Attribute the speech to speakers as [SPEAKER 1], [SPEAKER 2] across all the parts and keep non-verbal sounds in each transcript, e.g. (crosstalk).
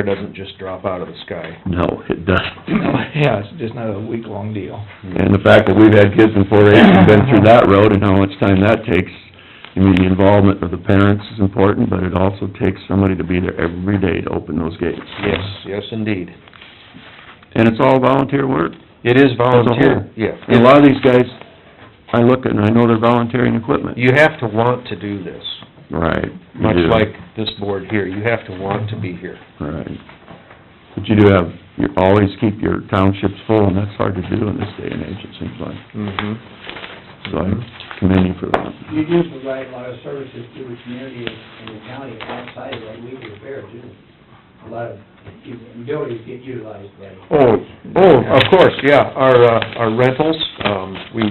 [SPEAKER 1] It doesn't just drop out of the sky.
[SPEAKER 2] No, it doesn't.
[SPEAKER 3] Yeah, it's just not a week-long deal.
[SPEAKER 2] And the fact that we've had kids in four H and been through that road and how much time that takes, I mean, the involvement of the parents is important, but it also takes somebody to be there every day to open those gates.
[SPEAKER 1] Yes, yes, indeed.
[SPEAKER 2] And it's all volunteer work.
[SPEAKER 1] It is
[SPEAKER 2] volunteer.
[SPEAKER 1] volunteer, yeah.
[SPEAKER 2] And a lot of these guys, I look at and I know they're volunteering equipment.
[SPEAKER 1] You have to want to do this,
[SPEAKER 2] Right. you
[SPEAKER 1] much
[SPEAKER 2] do,
[SPEAKER 1] like this board here, you have to want to be here.
[SPEAKER 2] Right. But you do have, you always keep your townships full, and that's hard to do in this day and age, it seems like.
[SPEAKER 1] Mm-hmm.
[SPEAKER 2] So I commend you for that.
[SPEAKER 4] You do provide a lot of services to the community and the county outside of what we do fair too. A lot of utilities get utilized by.
[SPEAKER 1] Oh, oh, of course, yeah, our, uh, our rentals, um, we,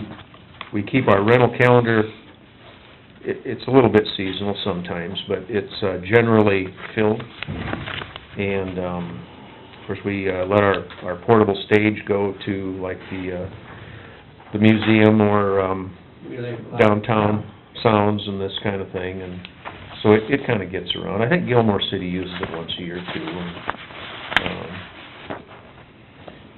[SPEAKER 1] we keep our rental calendar, it, it's a little bit seasonal sometimes, but it's, uh, generally filled. And, um, of course, we, uh, let our, our portable stage go to like the, uh, the museum or, um,
[SPEAKER 4] really-
[SPEAKER 1] downtown sounds and this kind of thing, and so it, it kinda gets around. I think Gilmore City uses it once a year too, and, um,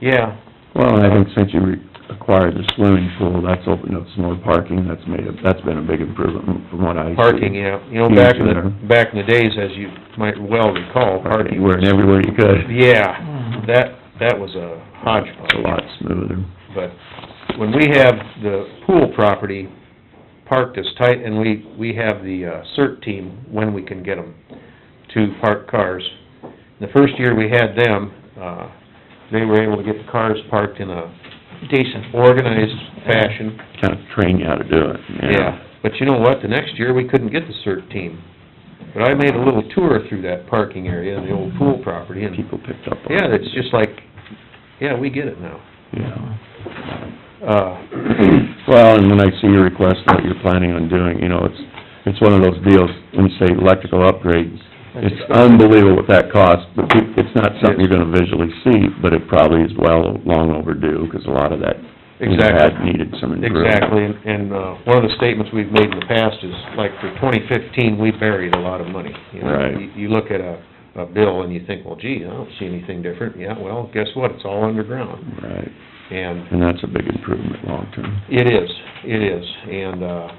[SPEAKER 1] yeah,
[SPEAKER 2] Well, and I think since you re- acquired the swimming pool, that's opened up some more parking, that's made, a- that's been a big improvement from what I see.
[SPEAKER 1] parking, yeah, you know, back in
[SPEAKER 2] Huge
[SPEAKER 1] the, back in the days, as you might well recall,
[SPEAKER 2] Parking,
[SPEAKER 1] parking,
[SPEAKER 2] where, and everywhere you could.
[SPEAKER 1] yeah, that, that was a hodgepodge.
[SPEAKER 2] It's a lot smoother.
[SPEAKER 1] But when we have the pool property parked as tight, and we, we have the uh, CERT team, when we can get them to park cars. The first year we had them, uh, they were able to get the cars parked in a
[SPEAKER 3] Decent.
[SPEAKER 1] organized fashion.
[SPEAKER 2] Kind of train you how to do it, yeah.
[SPEAKER 1] But you know what, the next year, we couldn't get the CERT team. But I made a little tour through that parking area, the old pool property, and,
[SPEAKER 2] People picked up on it.
[SPEAKER 1] yeah, it's just like, yeah, we get it now.
[SPEAKER 2] Yeah.
[SPEAKER 1] Uh,
[SPEAKER 2] Well, and when I see your request, what you're planning on doing, you know, it's, it's one of those deals, when you say electrical upgrades, it's unbelievable what that costs, but it- it's not something you're gonna visually see, but it probably is well, long overdue, because a lot of that, you know,
[SPEAKER 1] Exactly.
[SPEAKER 2] had needed some improvement.
[SPEAKER 1] Exactly, and, and, uh, one of the statements we've made in the past is, like, for twenty fifteen, we buried a lot of money. You know,
[SPEAKER 2] Right.
[SPEAKER 1] you- You look at a, a bill and you think, well, gee, I don't see anything different, yeah, well, guess what, it's all underground,
[SPEAKER 2] Right,
[SPEAKER 1] and
[SPEAKER 2] and that's a big improvement long-term.
[SPEAKER 1] it is, it is, and, uh,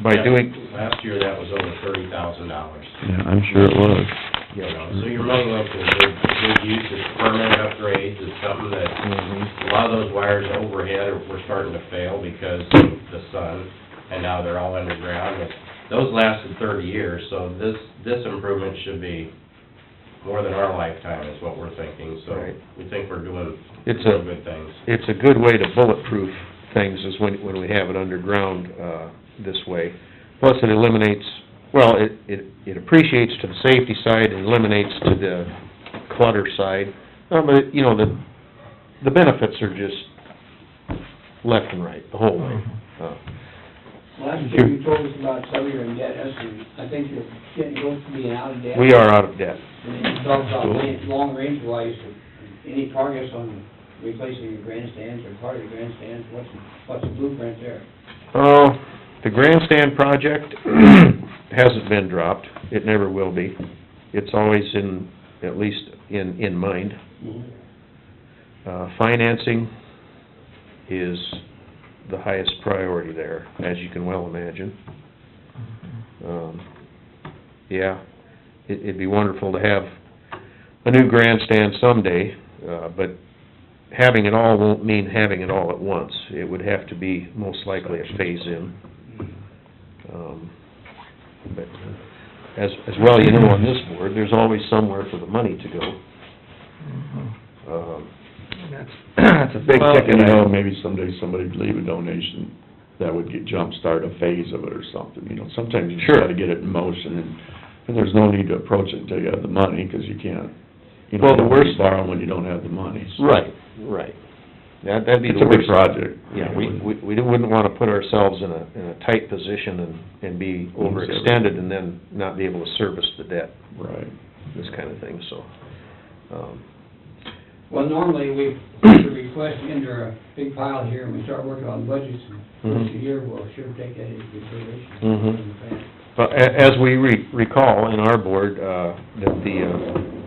[SPEAKER 1] by
[SPEAKER 5] Yeah.
[SPEAKER 1] doing,
[SPEAKER 5] Last year, that was over thirty thousand dollars.
[SPEAKER 2] Yeah, I'm sure it was.
[SPEAKER 5] You know, so you're really looking at good, good use of permanent upgrades, it's something that,
[SPEAKER 1] mhm,
[SPEAKER 5] a lot of those wires overhead are, were starting to fail because of the sun, and now they're all underground. And Those lasted thirty years, so this, this improvement should be more than our lifetime is what we're thinking, so
[SPEAKER 1] Right.
[SPEAKER 5] we think we're doing
[SPEAKER 1] It's
[SPEAKER 5] some
[SPEAKER 1] a-
[SPEAKER 5] good things.
[SPEAKER 1] it's a good way to bulletproof things is when, when we have it underground, uh, this way. Plus, it eliminates, well, it, it, it appreciates to the safety side, it eliminates to the clutter side. Uh, but, you know, the, the benefits are just left and right, the whole way. Uh,
[SPEAKER 4] Last year you told us about some of your indebtedness, and I think you're getting close to being out of debt.
[SPEAKER 1] We are out of debt.
[SPEAKER 4] And then you talked about long range wise, any progress on replacing your grandstands or part of the grandstands, what's, what's the blueprint there?
[SPEAKER 1] Uh, the grandstand project (clears throat) hasn't been dropped, it never will be. It's always in, at least in, in mind. Mm-hmm. Uh, financing is the highest priority there, as you can well imagine. Um, yeah, it, it'd be wonderful to have a new grandstand someday, uh, but having it all won't mean having it all at once. It would have to be most likely a phase-in. Um, But uh, as, as well, you know, on this board, there's always somewhere for the money to go.
[SPEAKER 3] Mm-hmm.
[SPEAKER 1] Um,
[SPEAKER 3] That's, that's a big
[SPEAKER 2] Well,
[SPEAKER 3] ticket
[SPEAKER 2] You know,
[SPEAKER 3] item.
[SPEAKER 2] maybe someday somebody would leave a donation that would get jumpstart a phase of it or something, you know, sometimes you just
[SPEAKER 1] Sure.
[SPEAKER 2] gotta get it in motion, and, and there's no need to approach it until you have the money, 'cause you can't, you know,
[SPEAKER 1] Well, the
[SPEAKER 2] you don't wanna
[SPEAKER 1] worst-
[SPEAKER 2] borrow when you don't have the money. so.
[SPEAKER 1] Right, right. That, that'd be
[SPEAKER 2] It's
[SPEAKER 1] the
[SPEAKER 2] a big
[SPEAKER 1] worst.
[SPEAKER 2] project.
[SPEAKER 1] Yeah, we, we, we wouldn't wanna put ourselves in a, in a tight position and, and be overextended and then not be able to service the debt,
[SPEAKER 2] Right.
[SPEAKER 1] this kind of thing, so. um,
[SPEAKER 4] Well, normally, we put the request into a big pile here, and we start working on budgets, and once a
[SPEAKER 1] Mhm.
[SPEAKER 4] year, we'll sure take that into consideration.
[SPEAKER 1] Mm-hmm. Mhm. But a- as we re- recall in our board, uh, that the, uh,